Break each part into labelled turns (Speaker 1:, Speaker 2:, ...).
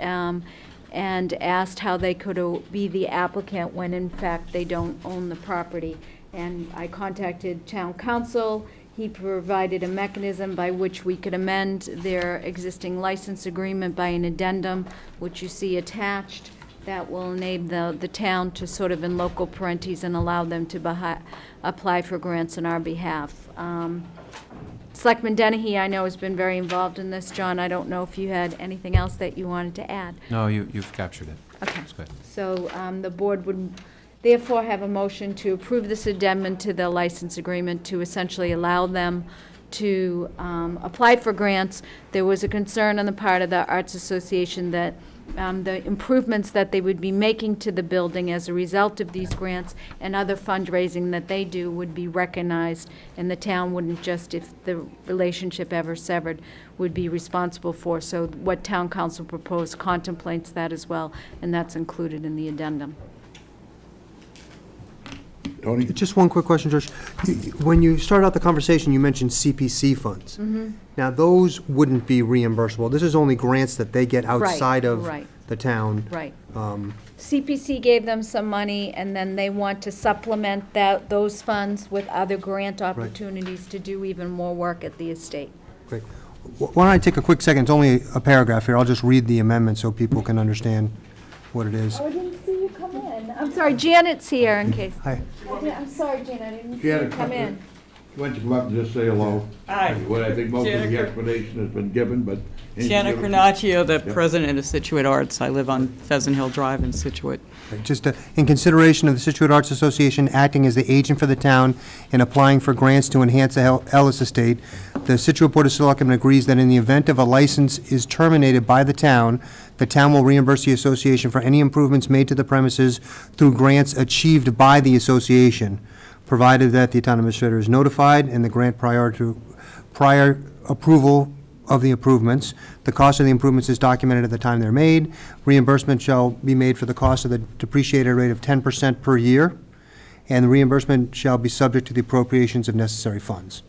Speaker 1: um, and asked how they could uh, be the applicant when in fact they don't own the property. And I contacted town council. He provided a mechanism by which we could amend their existing license agreement by an addendum, which you see attached. That will enable the, the town to sort of in local parentis and allow them to behi- apply for grants on our behalf. Um, Selectman Dennehy, I know, has been very involved in this. John, I don't know if you had anything else that you wanted to add.
Speaker 2: No, you, you've captured it.
Speaker 1: Okay.
Speaker 2: It's good.
Speaker 1: So um, the board would therefore have a motion to approve this addendum to the license agreement to essentially allow them to um, apply for grants. There was a concern on the part of the Arts Association that um, the improvements that they would be making to the building as a result of these grants and other fundraising that they do would be recognized, and the town wouldn't just, if the relationship ever severed, would be responsible for. So what town council proposed contemplates that as well, and that's included in the addendum.
Speaker 3: Tony?
Speaker 4: Just one quick question, George. You- you- When you started out the conversation, you mentioned CPC funds. Now, those wouldn't be reimbursable. This is only grants that they get outside of
Speaker 1: right.
Speaker 4: the town.
Speaker 1: Right.
Speaker 4: Um,
Speaker 1: CPC gave them some money, and then they want to supplement that, those funds with other grant opportunities to do even more work at the estate.
Speaker 4: great. Wh- Why don't I take a quick second? It's only a paragraph here. I'll just read the amendment so people can understand what it is.
Speaker 1: I didn't see you come in. I'm sorry, Janet's here in case.
Speaker 4: Hi.
Speaker 1: I'm sorry, Janet, I didn't see you
Speaker 3: Janet,
Speaker 1: come in.
Speaker 3: Why don't you come up and just say hello?
Speaker 5: Hi.
Speaker 3: What I think most of the
Speaker 5: Janet-
Speaker 3: explanation has been given, but.
Speaker 5: Gianna Carnaccio, the president of Situate Arts. I live on Pheasant Hill Drive in Situate.
Speaker 4: Just uh, in consideration of the Situate Arts Association acting as the agent for the town in applying for grants to enhance the Hel- Ellis Estate, the Situate Board of Selectmen agrees that in the event of a license is terminated by the town, the town will reimburse the association for any improvements made to the premises through grants achieved by the association, provided that the town administrator is notified and the grant prior to, prior approval of the improvements. The cost of the improvements is documented at the time they're made. Reimbursement shall be made for the cost of the depreciated rate of ten percent per year, and the reimbursement shall be subject to the appropriations of necessary funds.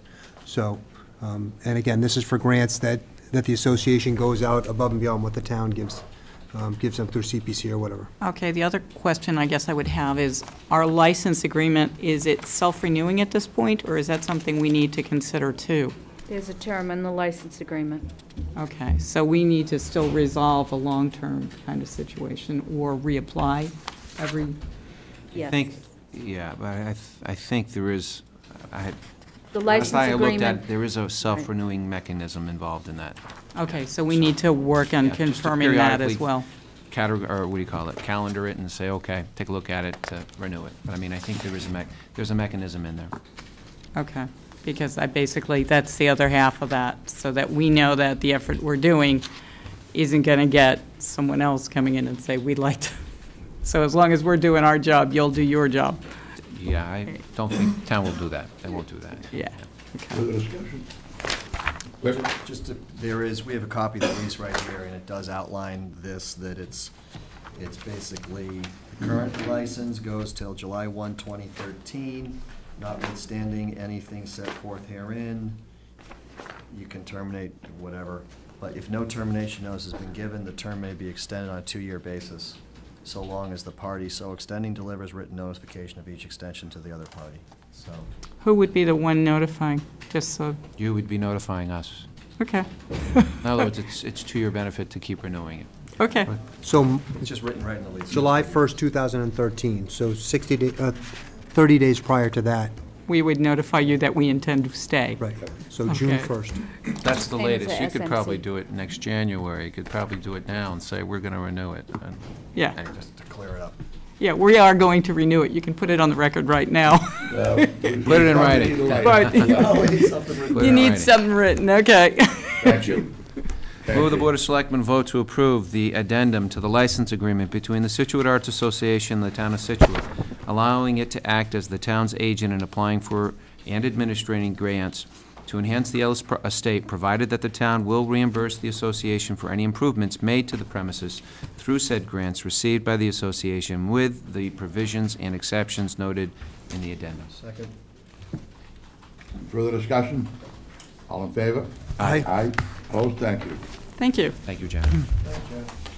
Speaker 4: So, um, and again, this is for grants that, that the association goes out above and beyond what the town gives, um, gives them through CPC or whatever.
Speaker 5: Okay, the other question I guess I would have is, our license agreement, is it self-renewing at this point, or is that something we need to consider too?
Speaker 1: There's a term in the license agreement.
Speaker 5: Okay, so we need to still resolve a long-term kind of situation or reapply every,
Speaker 1: Yes.
Speaker 2: I think, yeah, but I, th- I think there is, I had.
Speaker 1: The license
Speaker 2: last I looked
Speaker 1: agreement.
Speaker 2: at, There is a self-renewing mechanism involved in that.
Speaker 5: okay, so we need to work on
Speaker 2: Yeah, just to
Speaker 5: confirming that as
Speaker 2: periodically
Speaker 5: well.
Speaker 2: Category, or what do you call it, calendar it and say, okay, take a look at it, uh, renew it. But I mean, I think there is a mech, there's a mechanism in there.
Speaker 5: Okay, because I basically, that's the other half of that, so that we know that the effort we're doing isn't going to get someone else coming in and say, we'd like to. So as long as we're doing our job, you'll do your job.
Speaker 2: Yeah, I don't think town will do that. They won't do that.
Speaker 5: Yeah.
Speaker 3: Further discussion?
Speaker 6: Ju- Just, to- there is, we have a copy of the lease right here, and it does outline this, that it's, it's basically, the current license goes till July 1, 2013, notwithstanding anything set forth herein, you can terminate whatever. But if no termination notice has been given, the term may be extended on a two-year basis, so long as the party so extending delivers written notification of each extension to the other party. So,
Speaker 5: Who would be the one notifying? Just so,
Speaker 2: You would be notifying us.
Speaker 5: okay,
Speaker 2: In other words, it's, it's to your benefit to keep renewing it.
Speaker 5: okay.
Speaker 4: So
Speaker 6: it's just written right in the lease.
Speaker 4: July first, two thousand and thirteen, so sixty, day- uh, thirty days prior to that,
Speaker 5: We would notify you that we intend to stay.
Speaker 4: right, so June
Speaker 5: Okay.
Speaker 4: first.
Speaker 2: That's the
Speaker 1: Same as
Speaker 2: latest.
Speaker 1: the
Speaker 2: You could probably
Speaker 1: SMC.
Speaker 2: do it next January. You could probably do it now and say, we're going to renew it. And-
Speaker 5: Yeah,
Speaker 6: Just to clear it up.
Speaker 5: yeah, we are going to renew it. You can put it on the record right now.
Speaker 2: Put it in writing.
Speaker 5: But
Speaker 2: Put it
Speaker 5: you
Speaker 2: in
Speaker 5: need
Speaker 2: writing.
Speaker 5: something written, okay.
Speaker 3: Thank you. Thank
Speaker 2: Move the
Speaker 3: you.
Speaker 2: Board of Selectmen vote to approve the addendum to the license agreement between the Situate Arts Association and the Town of Situate, allowing it to act as the town's agent in applying for and administering grants to enhance the Ellis pro- Estate, provided that the town will reimburse the association for any improvements made to the premises through said grants received by the association with the provisions and exceptions noted in the addendum.
Speaker 6: Second.
Speaker 3: Further discussion? All in favor?
Speaker 4: Aye.
Speaker 3: Aye, opposed, thank you.
Speaker 5: Thank you.
Speaker 2: Thank you, John.